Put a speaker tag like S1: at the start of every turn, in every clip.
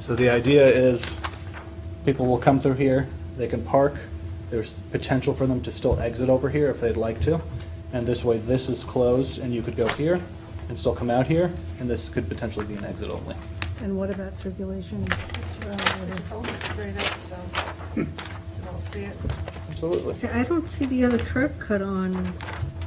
S1: So the idea is, people will come through here, they can park, there's potential for them to still exit over here if they'd like to, and this way, this is closed, and you could go here, and still come out here, and this could potentially be an exit only.
S2: And what about circulation?
S3: It's almost straight up, so you can all see it.
S1: Absolutely.
S2: See, I don't see the other curb cut on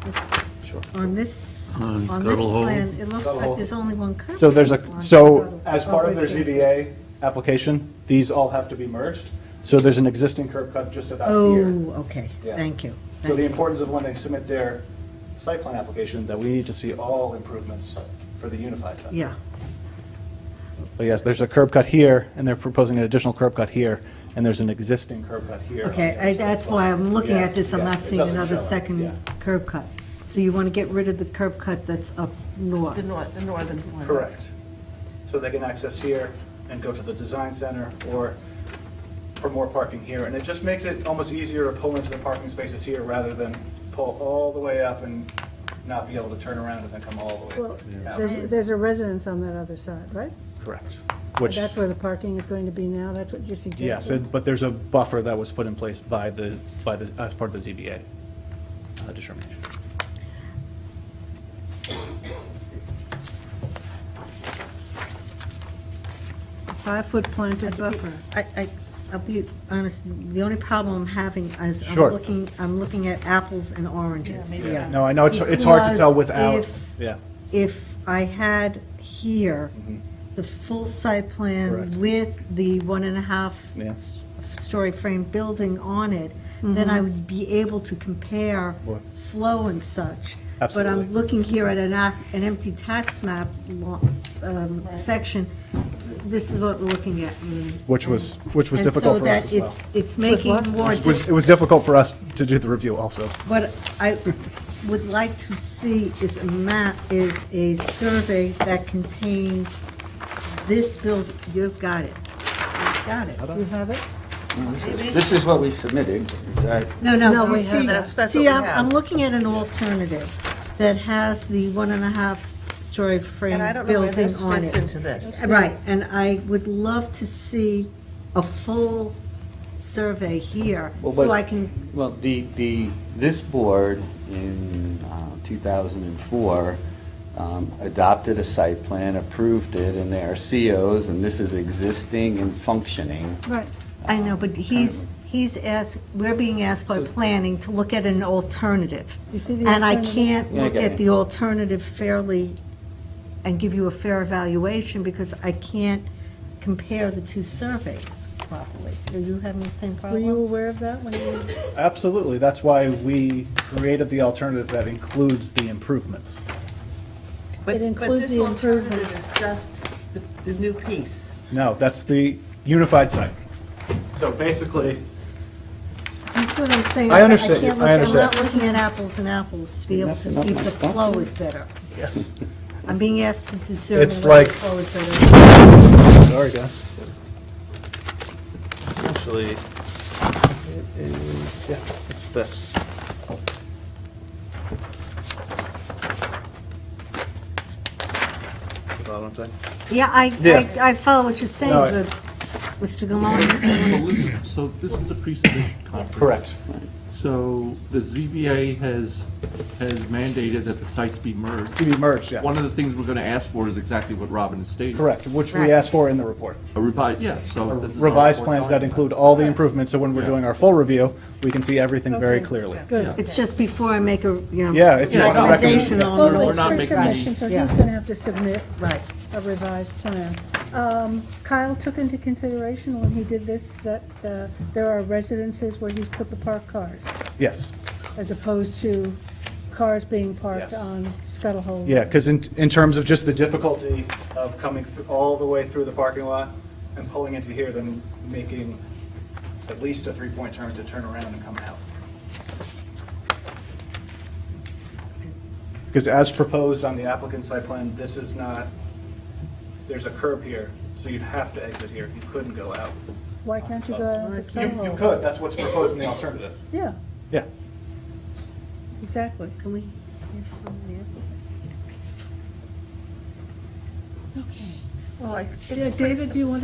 S2: this,
S1: Sure.
S2: on this,
S4: On
S2: on this
S4: Scuttle Hole.
S2: plan. It looks
S1: Scuttle Hole.
S2: like there's only one curb.
S1: So there's
S2: cut
S1: a,
S2: on
S1: so
S2: Scuttle.
S1: as part of their
S2: Oh, right there.
S1: ZBA application, these all have to be merged. So there's an existing curb cut just about here.
S2: Oh, okay,
S1: Yeah.
S2: thank you.
S1: So the importance of when they submit their site plan application, that we need to see all improvements for the unified site.
S2: Yeah,
S1: But Oh, yes, there's a curb cut here, and they're proposing an additional curb cut here, and there's an existing curb cut here. on
S2: okay,
S1: the other
S2: I-
S1: side
S2: that's
S1: as well.
S2: why I'm looking
S1: Yeah,
S2: at this, I'm
S1: yeah,
S2: not
S1: it
S2: seeing
S1: doesn't
S2: another
S1: show it, yeah.
S2: second curb cut. So you want to get rid of the curb cut that's up north?
S3: The north, the northern one.
S1: Correct. So they can access here and go to the design center or for more parking here. And it just makes it almost easier to pull into the parking spaces here rather than pull all the way up and not be able to turn around and then come all the
S5: Well,
S1: way
S5: There's
S1: out.
S5: there's a residence on that other side, right?
S1: Correct. Which,
S5: That's where the parking is going to be now, that's what you're suggesting?
S1: yes, it- but there's a buffer that was put in place by the, by the, as part of the ZBA uh, determination.
S5: Five-foot planted buffer.
S2: I, I, I'll be honest, the only problem I'm having is I'm
S1: Sure.
S2: looking, I'm looking at apples and oranges.
S3: maybe Yeah.
S1: No, I know it's, it's hard to tell
S2: Because
S1: without,
S2: if-
S1: yeah. Mm-hmm.
S2: If I had here the full site
S1: Correct.
S2: plan with the one and a half
S1: Yeah.
S2: s- story frame building on it, then I would be able to compare
S1: Right.
S2: flow and such. But
S1: Absolutely.
S2: I'm looking here at an, ac- an empty tax map lo- um, section, this is what we're looking at. and-
S1: Which was, which was
S2: and
S1: difficult for us as
S2: so that
S1: well.
S2: it's, it's making
S5: what?
S2: more,
S1: It was- It was difficult for us to do the review also.
S2: what I would like to see is a map, is a survey that contains this build, you've got it. You've got it.
S5: You have it?
S6: This is what we submitted, is that,
S2: No,
S5: No,
S2: no,
S5: we
S2: you
S5: have
S2: see,
S3: that's- that's
S2: see,
S3: what we
S2: I'm, I'm
S3: have.
S2: looking at an alternative that has the one and a half story frame
S3: And I don't know where
S2: building
S3: this
S2: on
S3: fits
S2: it.
S3: into this.
S2: Right, and I would love to see a full survey here,
S6: Well,
S2: so
S6: but-
S2: I can
S6: well, the, the, this board in uh, 2004 um, adopted a site plan, approved it, and there are COs, and this is existing and functioning.
S5: Right.
S2: I know, but he's, he's asked, we're being asked by planning to look at an alternative.
S5: You see the
S2: And I
S5: alternative?
S2: can't
S6: Yeah, I
S2: look
S6: get
S2: at
S6: it.
S2: the alternative fairly and give you a fair evaluation because I can't compare the two surveys properly. Are you having the same
S5: Were you
S2: problem?
S5: aware of that when you,
S1: Absolutely, that's why we created the alternative that includes the improvements.
S3: But-
S5: It includes the
S3: But
S5: improvement.
S3: this alternative is just the, the new piece.
S1: No, that's the unified site. So basically,
S2: Do you see what I'm saying?
S1: I understand you. I
S2: can't look-
S1: understand.
S2: I'm not looking at apples and apples to be able to
S6: messing up
S2: see if
S6: my
S2: the
S6: stuff.
S2: flow is better.
S1: yes,
S2: I'm being asked to determine
S1: It's
S2: whether
S1: like-
S2: the flow is better.
S1: sorry guys. Essentially, it is, yeah, it's this. Follow what I'm saying?
S2: Yeah, I,
S1: Yeah.
S2: I I follow what you're saying,
S1: No, I-
S2: but Mr. Gilmore,
S7: So this is a pre-submission conference.
S1: Correct.
S7: So the ZBA has, has mandated that the sites be merged.
S1: To be merged, yes.
S7: One of the things we're going to ask for is exactly what Robin has stated.
S1: Correct, which
S2: Right.
S1: we asked for in the report.
S7: A revised, yeah, so this is. our
S1: Revised
S7: report
S1: plans that
S7: document.
S1: include all the improvements, so when we're
S7: Yeah.
S1: doing our full review, we can see everything very
S5: Okay.
S1: clearly.
S7: Yeah.
S2: It's just before I make a, you know.
S1: Yeah, if you want to recommend-
S2: Recommendation on.
S7: We're
S5: Well,
S7: not
S5: it's
S7: making any-
S5: pre-submission, so
S2: Yeah.
S5: he's going to have to submit
S2: Right.
S5: a revised plan. Um, Kyle took into consideration when he did this that uh, there are residences where he's put the parked cars,
S1: Yes.
S5: as opposed to cars being parked
S1: Yes.
S5: on Scuttle Hole.
S1: Yeah, because in, in terms of just the difficulty of coming through, all the way through the parking lot and pulling into here, then making at least a three-point turn to turn around and come out. Because as proposed on the applicant's site plan, this is not, there's a curb here, so you'd have to exit here. You couldn't go out.
S5: Why can't you go out onto
S1: Uh, You,
S5: Scuttle Hole?
S1: you could, that's what's proposed in the alternative.
S5: Yeah,
S1: Yeah.
S5: exactly.
S2: Can we hear from the applicant?
S3: Well, I.
S5: Yeah, David, do you want